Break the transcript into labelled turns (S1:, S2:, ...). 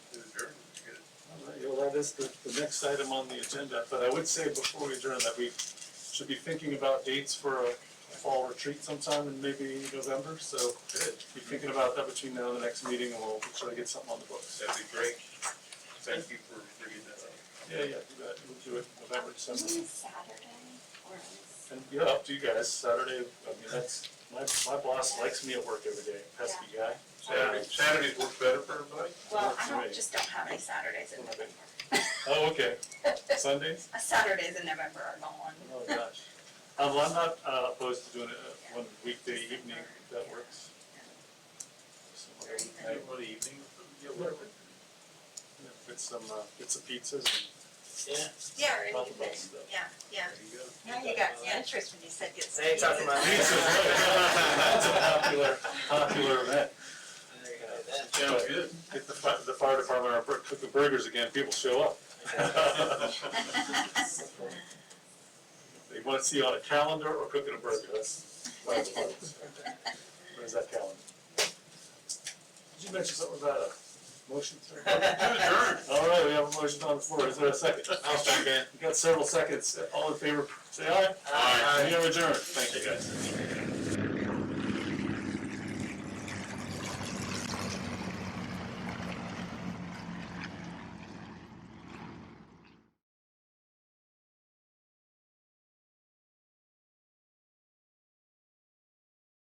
S1: as the, the next item on the agenda, but I would say before we adjourn that we should be thinking about dates for a fall retreat sometime in maybe November, so be thinking about that between now and the next meeting, and we'll try to get something on the books.
S2: That'd be great. Thank you for bringing that up.
S1: Yeah, yeah, do that, we'll do it November, December.
S3: Isn't it Saturday or is?
S1: And yeah, up to you guys, Saturday, I mean, that's, my, my boss likes me at work every day, pesky guy.
S2: Saturday, Saturdays work better for everybody?
S3: Well,
S1: Works
S3: I
S1: for
S3: don't,
S1: me.
S3: just don't have any Saturdays in November.
S1: Oh, okay, Sundays?
S3: Uh, Saturdays in November are gone.
S1: Oh, gosh. Um, well, I'm not uh, opposed to doing it uh, one weekday evening, if that works. Some other
S2: Hey,
S1: night,
S2: What evening? Yeah, whatever.
S1: you know, Get some, uh, get some pizzas
S3: Yeah, or
S1: and talk about
S3: anything,
S1: stuff.
S3: yeah, yeah.
S2: There you go.
S4: Now you got the interest when you said get some.
S5: They ain't talking about
S4: pieces.
S1: Pizzas, right. That's a popular, popular event.
S5: There you go, that's
S2: Sounds good.
S1: Get the fi- the fire department our bur- cook the burgers again, people show up. They want to see you on a calendar or cooking a burger, that's my department. Where's that calendar? Did you mention something about a motion? sir? All right, we have a motion on the floor, is there a second?
S2: I'll second.
S1: We've got several seconds, all in favor, say aye.
S2: Aye.
S1: We are adjourned, thank you guys.